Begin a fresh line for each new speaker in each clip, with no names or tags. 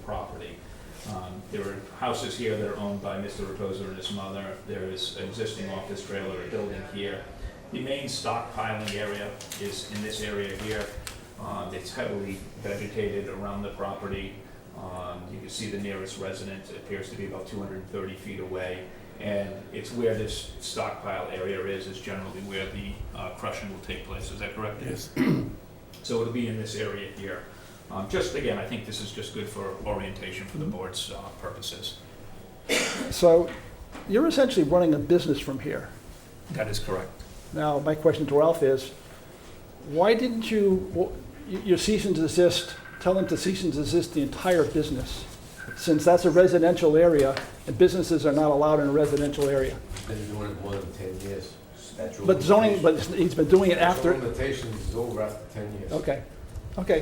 property. Um, There are houses here that are owned by Mr. Reposa and his mother. There is an existing office trailer, a building here. The main stockpiling area is in this area here. Um, It's heavily vegetated around the property. Um, You can see the nearest resident appears to be about 230 feet away. And it's where this stockpile area is, is generally where the uh, crushing will take place. Is that correct? Dave?
Yes.
So it'll be in this area here. Um, Just, again, I think this is just good for orientation for the
Mm-hmm.
board's uh, purposes.
So you're essentially running a business from here.
That is correct.
Now, my question to Ralph is, why didn't you, well, y- your cease and desist, tell them to cease and desist the entire business? Since that's a residential area, and businesses are not allowed in a residential area.
Been doing it more than 10 years. Statute
But
of
zoning,
limitations.
but he's been doing it
Statute
after,
of Limitations is over after 10 years.
okay, okay,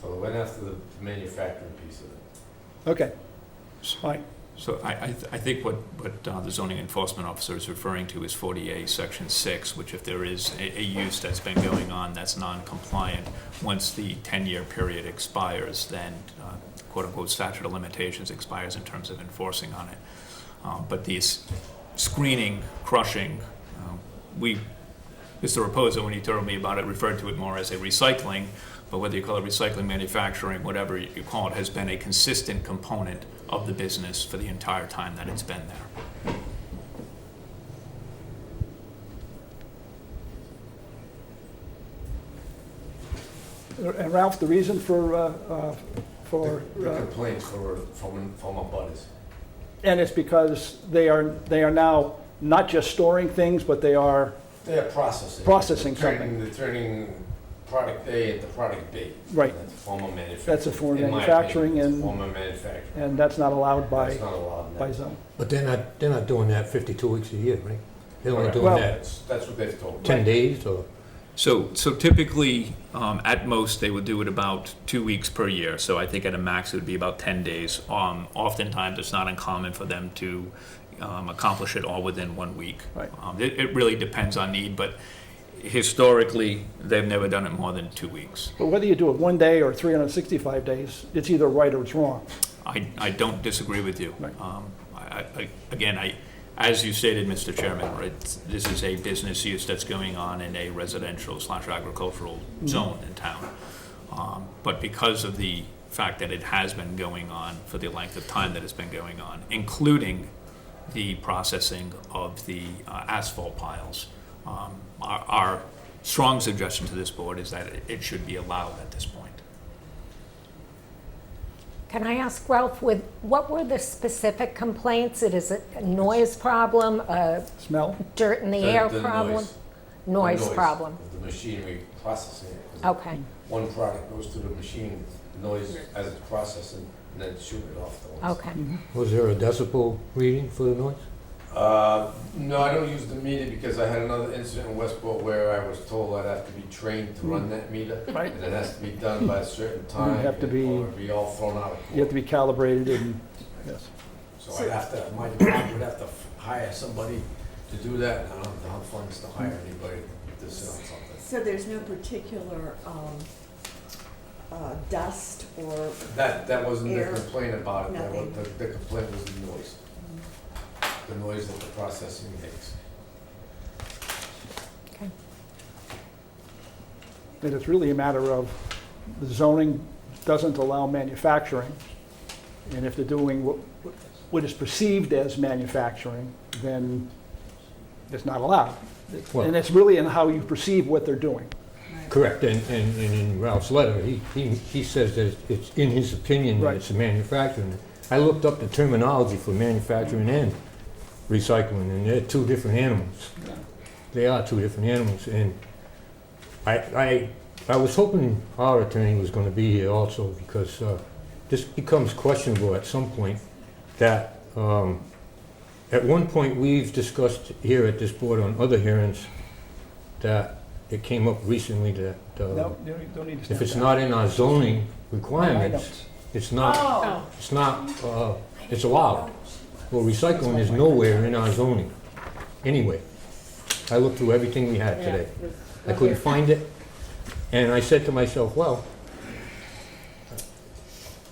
So they went after the manufacturing piece of it.
okay, fine,
So I, I, th- I think what, what uh, the zoning enforcement officer is referring to is 40A, Section 6, which if there is a, a use that's been going on that's non-compliant, once the 10-year period expires, then uh, quote-unquote statute of limitations expires in terms of enforcing on it. Uh, But these screening, crushing, um, we, Mr. Reposa, when he told me about it, referred to it more as a recycling, but whether you call it recycling, manufacturing, whatever you call it, has been a consistent component of the business for the entire time that it's been there.
And Ralph, the reason for, uh, uh, for,
The- The
uh,
complaints for, from, from our butters.
and it's because they are, they are now not just storing things, but they are,
They are processing.
Processing
They're turning-
something.
They're turning product A into product B.
Right.
That's a form of manufacturing.
That's a form of
In my
manufacturing
opinion, it's a
and-
Form of manufacturing.
and that's not allowed by,
That's not allowed now.
by zone.
But they're not, they're not doing that 52 weeks a year, right? They're only
Correct.
doing
Well-
that
That's, that's what they've told me.
10 days or,
So, so typically, um, at most, they would do it about two weeks per year. So I think at a max, it would be about 10 days. Um, oftentimes, it's not uncommon for them to um, accomplish it all within one week.
Right.
Um, it, it really depends on need, but historically, they've never done it more than two weeks.
But whether you do it one day or 365 days, it's either right or it's wrong.
I, I don't disagree with you.
Right.
Um, I, I, again, I, as you stated, Mr. Chairman, right, this is a business use that's going on in a residential slash agricultural zone in town. Um, but because of the fact that it has been going on for the length of time that it's been going on, including the processing of the uh, asphalt piles, um, our, our strong suggestion to this board is that it- it should be allowed at this point.
Can I ask Ralph, with, what were the specific complaints? It is a noise problem, a
Smell?
dirt in the air problem?
noise. The
Noise problem. Oh.
of The machinery processing it. 'cause
Okay,
one product goes to the machine, noise as it's processing, and then shoot it off the ones.
okay.
was there a decibel reading for the noise?
Uh, no, I don't use the meter because I had another incident in Westport where I was told I'd have to be trained to run that meter.
Right.
And it has to be done by a certain time.
have to
and-
be-
Or it'd be all thrown out of
You have
court.
to be calibrated and, yes.
So I'd have to, my department would have to f- hire somebody to do that, and I don't have the funds to hire anybody to sell something.
So there's no particular um, uh, dust or,
That, that wasn't the
Air,
complaint about it, that was,
nothing.
the the complaint was the noise. The noise that the processing makes.
And it's really a matter of the zoning doesn't allow manufacturing. And if they're doing what, what is perceived as manufacturing, then it's not allowed. And
Well,
it's really in how you perceive what they're doing.
correct, and, and and in Ralph's letter, he, he he says that it's in his opinion that
Right.
it's a manufacturing. I looked up the terminology for manufacturing and recycling, and they're two different animals. They are two different animals, and I, I, I was hoping our attorney was gonna be here also, because, uh, this becomes questionable at some point, that, um, at one point, we've discussed here at this board on other hearings, that it came up recently that, uh,
No, you don't- don't need to
if it's
stand
not in our zoning
back. I know.
requirements, it's not,
oh,
it's not, uh, it's allowed. Well, recycling is nowhere in our zoning, anyway. I looked through everything we had
yeah.
today. I couldn't find it. And I said to myself, well,